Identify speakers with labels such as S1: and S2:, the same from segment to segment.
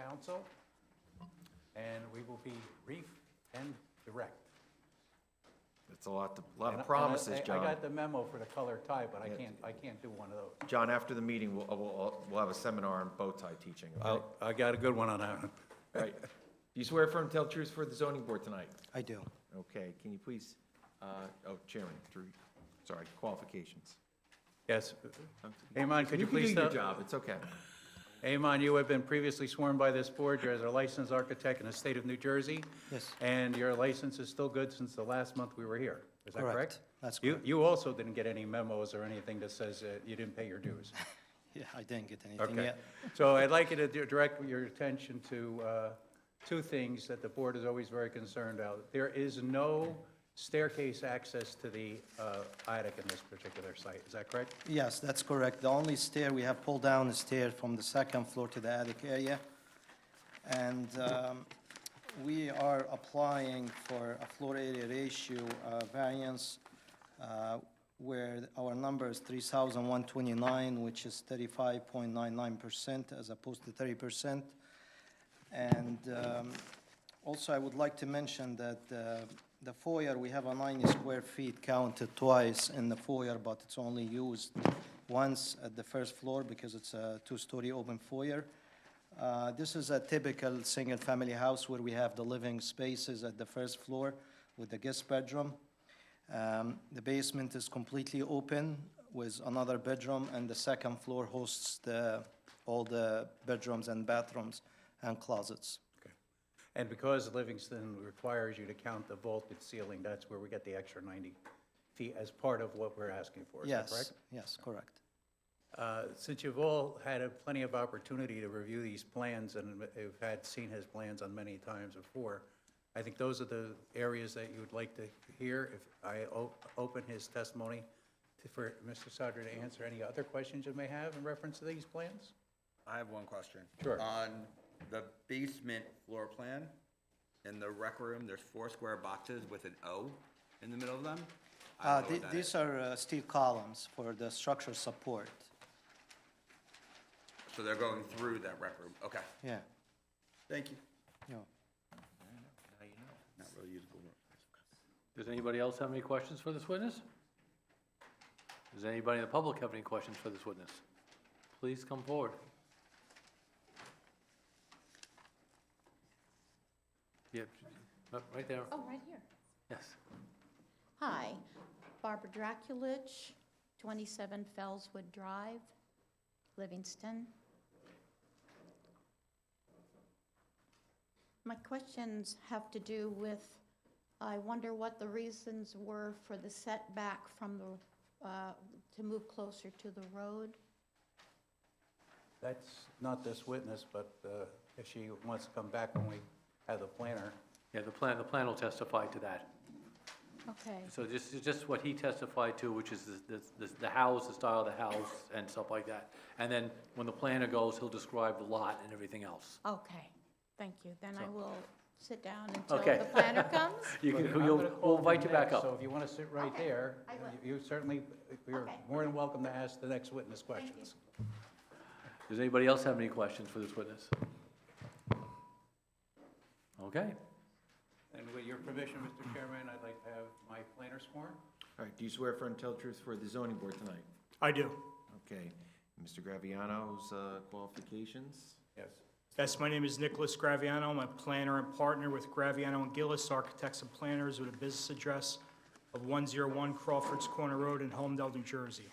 S1: council, and we will be brief and direct.
S2: It's a lot, to- a lot
S1: And- and I-
S2: of promises,
S1: I- I got
S2: John.
S1: the memo for the color tie, but I
S2: Yeah.
S1: can't, I can't do one of those.
S2: John, after the meeting, we'll, we'll, we'll have a seminar on bow tie teaching, okay?
S1: I'll- I got a good one on that one.
S2: Right. Do you swear firm to tell the truth for the zoning board tonight?
S3: I do.
S2: Okay, can you please, uh, oh, Chairman, Drew, sorry, qualifications.
S1: Yes. Amon, could you please?
S2: You can do your
S1: tell-
S2: job, it's okay.
S1: Amon, you have been previously sworn by this board. You're as a licensed architect in the state of New Jersey.
S3: Yes.
S1: And your license is still good since the last month we were here. Is that
S3: Correct.
S1: correct?
S3: That's
S1: You-
S3: correct.
S1: You also didn't get any memos or anything that says uh, you didn't pay your dues.
S3: Yeah, I didn't get anything
S1: Okay.
S3: yet.
S1: So I'd like you to di- direct your attention to uh, two things that the board is always very concerned about. There is no staircase access to the uh, attic in this particular site. Is that correct?
S3: Yes, that's correct. The only stair, we have pulled down the stair from the second floor to the attic area. And um, we are applying for a floor area ratio uh, variance uh, where our number is 3,129, which is 35.99% as opposed to 30%. And um, also, I would like to mention that uh, the foyer, we have a 90 square feet counted twice in the foyer, but it's only used once at the first floor because it's a two-story open foyer. Uh, This is a typical single-family house where we have the living spaces at the first floor with the guest bedroom. Um, The basement is completely open with another bedroom, and the second floor hosts the, all the bedrooms and bathrooms and closets.
S1: Okay. And because Livingston requires you to count the vaulted ceiling, that's where we get the extra 90 feet as part of what we're asking for. Is that
S3: Yes,
S1: correct?
S3: yes, correct.
S1: Uh, Since you've all had a- plenty of opportunity to review these plans, and have had seen his plans on many times before, I think those are the areas that you would like to hear. If I o- open his testimony to- for Mr. Sadr to answer any other questions you may have in reference to these plans?
S4: I have one question.
S1: Sure.
S4: On the basement floor plan, in the rec room, there's four square boxes with an O in the middle of them.
S3: Uh,
S4: I don't know
S3: the-
S4: what that
S3: These
S4: is.
S3: are uh, steel columns for the structure support,
S4: So they're going through that rec room. Okay,
S3: yeah,
S4: thank you.
S3: yeah.
S4: Not really usable.
S5: Does anybody else have any questions for this witness? Does anybody in the public have any questions for this witness? Please come forward. Yep, right there,
S6: Oh, right here.
S5: yes.
S6: Hi, Barbara Draculich, 27 Fellswood Drive, Livingston. My questions have to do with, I wonder what the reasons were for the setback from the, uh, to move closer to the road?
S1: That's not this witness, but uh, if she wants to come back when we have the planner,
S5: Yeah, the plan, the plan will testify to that.
S6: Okay,
S5: So this is just what he testified to, which is the, the, the house, the style of the house and stuff like that. And then when the planner goes, he'll describe the lot and everything else.
S6: okay, thank you. Then I will sit down until
S5: Okay.
S6: the planner comes.
S5: You can,
S1: I'm gonna
S5: you'll,
S1: call
S5: we'll
S1: you
S5: invite you back
S1: next, So
S5: up.
S1: if you want to sit right
S6: Okay,
S1: there,
S6: I will.
S1: you certainly, you're
S6: Okay.
S1: more than welcome to ask the next witness questions.
S5: Does anybody else have any questions for this witness? Okay.
S1: And with your permission, Mr. Chairman, I'd like to have my planner sworn.
S2: All right, do you swear firm to tell the truth for the zoning board tonight?
S7: I do.
S2: Okay, Mr. Graviano's uh, qualifications?
S1: Yes.
S7: Yes, my name is Nicholas Graviano. I'm a planner and partner with Graviano and Gillis Architects and Planners with a business address of 101 Crawford's Corner Road in Holmdel, New Jersey.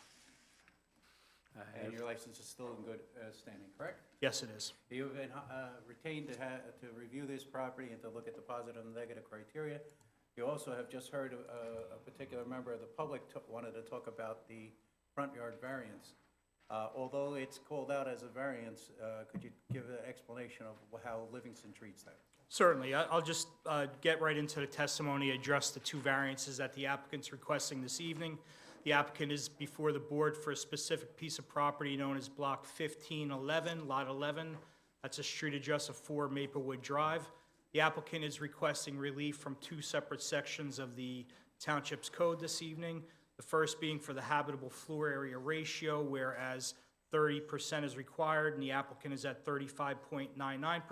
S1: And your license is still in good uh, standing, correct?
S7: Yes, it is.
S1: You've been uh, retained to ha- to review this property and to look at the positive and negative criteria. You also have just heard uh, a a particular member of the public to- wanted to talk about the front yard variance. Uh, Although it's called out as a variance, uh, could you give an explanation of how Livingston treats that?
S7: Certainly. I- I'll just uh, get right into the testimony, address the two variances that the applicant's requesting this evening. The applicant is before the board for a specific piece of property known as Block 1511, Lot 11. That's a street address of 4 Maplewood Drive. The applicant is requesting relief from two separate sections of the Township's Code this evening. The first being for the habitable floor area ratio, whereas 30% is required, and the applicant is at 35.99%.